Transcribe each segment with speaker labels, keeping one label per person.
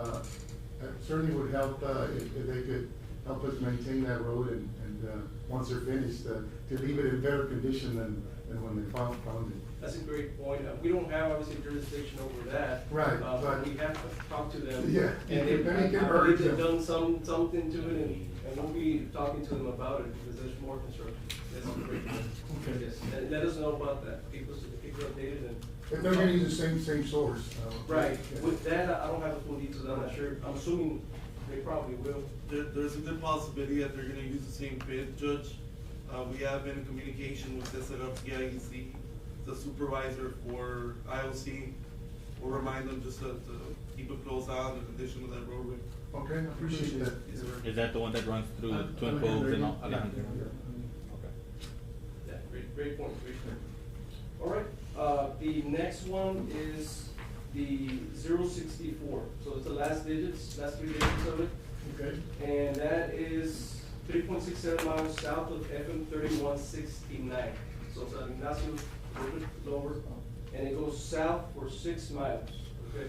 Speaker 1: Uh, certainly would help, uh, if, if they could help us maintain that road and, and, uh, once they're finished, uh, to leave it in better condition than, than when they found, found it.
Speaker 2: That's a great point. Uh, We don't have obviously jurisdiction over that.
Speaker 1: Right,
Speaker 2: Uh, but
Speaker 1: but-
Speaker 2: we have to talk to them.
Speaker 1: Yeah, you
Speaker 2: And they,
Speaker 1: can- you
Speaker 2: I
Speaker 1: can
Speaker 2: I believe
Speaker 1: urge
Speaker 2: they've
Speaker 1: them.
Speaker 2: done some, something to it and, and we'll be talking to them about it because there's more construction. That's a great point.
Speaker 1: Okay.
Speaker 2: Yes, and let us know about that. Keep us, keep us updated and.
Speaker 1: If they're gonna use the same, same source. uh,
Speaker 2: Right,
Speaker 1: yeah.
Speaker 2: with that, I I don't have the full details, I'm not sure. I'm assuming they probably will.
Speaker 3: There, there's a good possibility that they're gonna use the same bid, Judge. Uh, we have been in communication with Cesar Garcia, he's the, E the supervisor for IOC. We'll remind them just to, to keep a close eye on the condition of that roadway.
Speaker 1: Okay, I appreciate that.
Speaker 3: Yes, sir.
Speaker 4: Is that the one that runs through
Speaker 1: Uh,
Speaker 4: Twin Cove and all?
Speaker 1: Yeah,
Speaker 4: Alejandro?
Speaker 1: yeah, yeah.
Speaker 4: Okay.
Speaker 2: Yeah, great, great point, great point. All right, uh, the next one is the zero sixty-four, so it's the last digits, last three digits of it.
Speaker 1: Okay.
Speaker 2: And that is three point six seven miles south of FM thirty-one sixty-nine. So San Ignacio, a little bit lower, and it goes south for six miles, okay?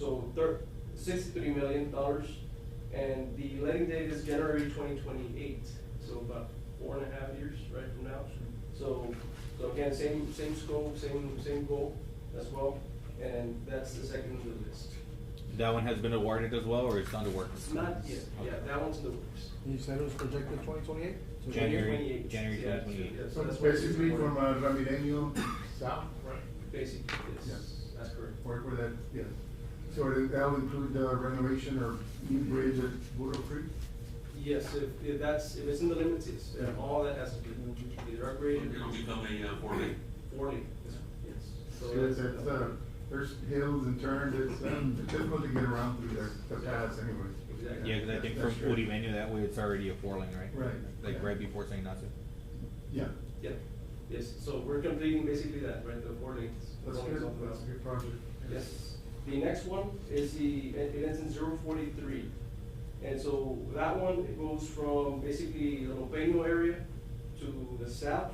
Speaker 2: So thir- sixty-three million dollars, and the letting date is January twenty twenty-eight, so about four and a half years right from now. So, so again, same, same scope, same, same goal as well, and that's the second on the list.
Speaker 4: That one has been awarded as well, or it's under work?
Speaker 2: It's not yet, yeah, that one's in the works.
Speaker 5: You said it was projected twenty twenty-eight?
Speaker 4: January-
Speaker 2: 28th.
Speaker 4: January
Speaker 2: Yeah,
Speaker 4: 28th.
Speaker 2: yeah, so
Speaker 1: So
Speaker 2: that's why it's
Speaker 1: basically from
Speaker 2: important.
Speaker 1: uh, Ramireño south,
Speaker 2: Right, basically,
Speaker 1: Yeah.
Speaker 2: yes, that's correct.
Speaker 1: where, where that, yeah. So that- that'll include uh, renovation or new bridge at Burro Creek?
Speaker 2: Yes, if, if that's, if it's in the limits, it's,
Speaker 1: Yeah.
Speaker 2: all that has to be, either upgraded.
Speaker 6: It'll become a uh, four lane.
Speaker 2: Forty, yes, so
Speaker 1: So it's,
Speaker 2: that's,
Speaker 1: it's, uh, there's hills and turns, it's, um, it's difficult to get around through there, the paths anyways.
Speaker 2: Exactly.
Speaker 4: Yeah, cause I think
Speaker 1: That's
Speaker 4: from
Speaker 1: true.
Speaker 4: Udi Menu, that way it's already a four lane, right?
Speaker 1: Right.
Speaker 4: Like right before St. Ignacio.
Speaker 1: Yeah,
Speaker 2: yeah, yes, so we're completing basically that, right, the four lanes.
Speaker 1: that's
Speaker 2: Four lanes
Speaker 1: good,
Speaker 2: off the
Speaker 1: that's a
Speaker 2: road.
Speaker 1: good project.
Speaker 2: Yes. The next one is the, it it ends in zero forty-three. And so that one, it goes from basically the Lopeño area to the south,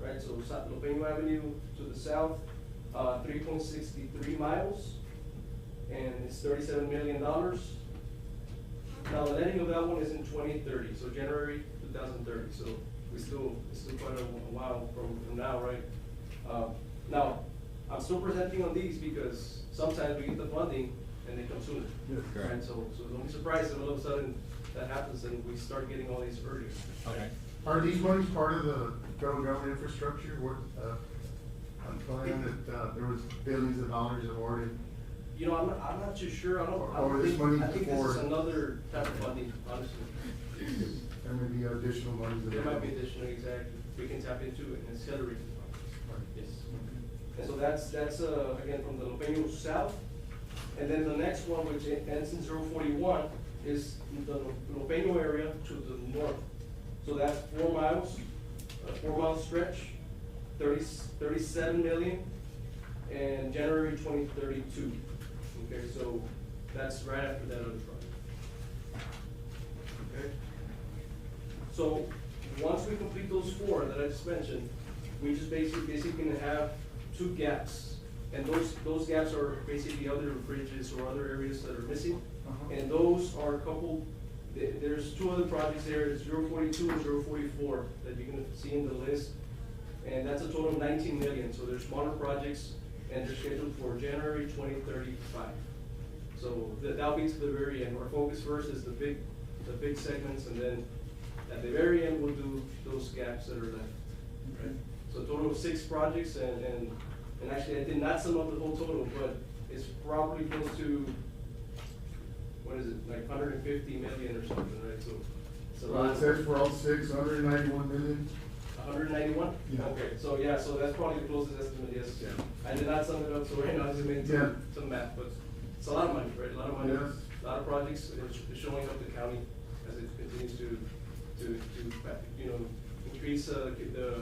Speaker 2: right? So Sa- Lopeño Avenue to the south, uh, three point sixty-three miles, and it's thirty-seven million dollars. Now, the letting of that one is in twenty thirty, so January two thousand thirty, so we still, it's still quite a while from, from now, right? Uh, Now, I'm still presenting on these because sometimes we get the funding and they come sooner.
Speaker 1: Yes.
Speaker 4: Correct.
Speaker 2: Right, so, so don't be surprised if all of a sudden that happens and we start getting all these earlier.
Speaker 4: Okay.
Speaker 1: Are these ones part of the federal government infrastructure, what, uh, I'm trying that, uh, there was billions of dollars awarded?
Speaker 2: You know, I'm not, I'm not too sure, I don't, I
Speaker 1: Or
Speaker 2: don't
Speaker 1: this
Speaker 2: think,
Speaker 1: money
Speaker 2: I think this is
Speaker 1: for-
Speaker 2: another type of funding, honestly.
Speaker 1: There may be additional ones.
Speaker 2: There might be
Speaker 1: available.
Speaker 2: additional, exactly, we can tap into it and accelerate the process.
Speaker 1: Right.
Speaker 2: Yes. And so that's, that's, uh, again, from the Lopeño South. And then the next one, which ends in zero forty-one, is the Lopeño area to the north. So that's four miles, a four-mile stretch, thirty, thirty-seven million, and January twenty thirty-two. Okay, so that's right after that other project. Okay? So, once we complete those four that I just mentioned, we just basically, basically gonna have two gaps. And those, those gaps are basically other bridges or other areas that are missing.
Speaker 1: Uh-huh.
Speaker 2: And those are coupled, th- there's two other projects there, zero forty-two and zero forty-four, that you're gonna see in the list. And that's a total of nineteen million, so there's smaller projects, and they're scheduled for January twenty thirty-five. So that, that'll be to the very end, our focus first is the big, the big segments, and then at the very end, we'll do those gaps that are left. Right? So a total of six projects, and, and, and actually, I did not sum up the whole total, but it's probably close to, what is it, like hundred and fifty million or something, right, so. it's a
Speaker 1: Well,
Speaker 2: lot.
Speaker 1: it says for all six, hundred and ninety-one million.
Speaker 2: hundred and ninety-one?
Speaker 1: Yeah.
Speaker 2: Okay, so yeah, so that's probably the closest estimate, yes.
Speaker 1: Yeah.
Speaker 2: I did not sum it up, so right now I just made
Speaker 1: Yeah.
Speaker 2: some, some math, but it's a lot of money, right? A lot of money,
Speaker 1: Yes.
Speaker 2: a lot of projects, and it's it's showing up the county as it continues to, to, to, fa- you know, increase, uh, the- the,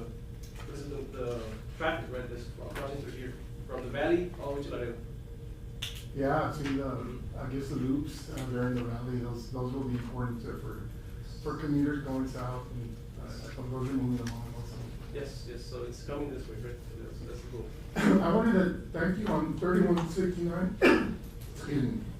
Speaker 2: this is the, the traffic, right, this project right here, from the valley all the way to Laredo.
Speaker 1: Yeah, I've seen, uh, I guess the loops uh, there in the valley, those, those will be important uh, for, for commuters going south and, uh, from those are moving along also.
Speaker 2: Yes, yes, so it's coming this way, right? So That's, that's the goal.
Speaker 1: I wanted to thank you on thirty-one sixty-nine. Excuse me. Uh,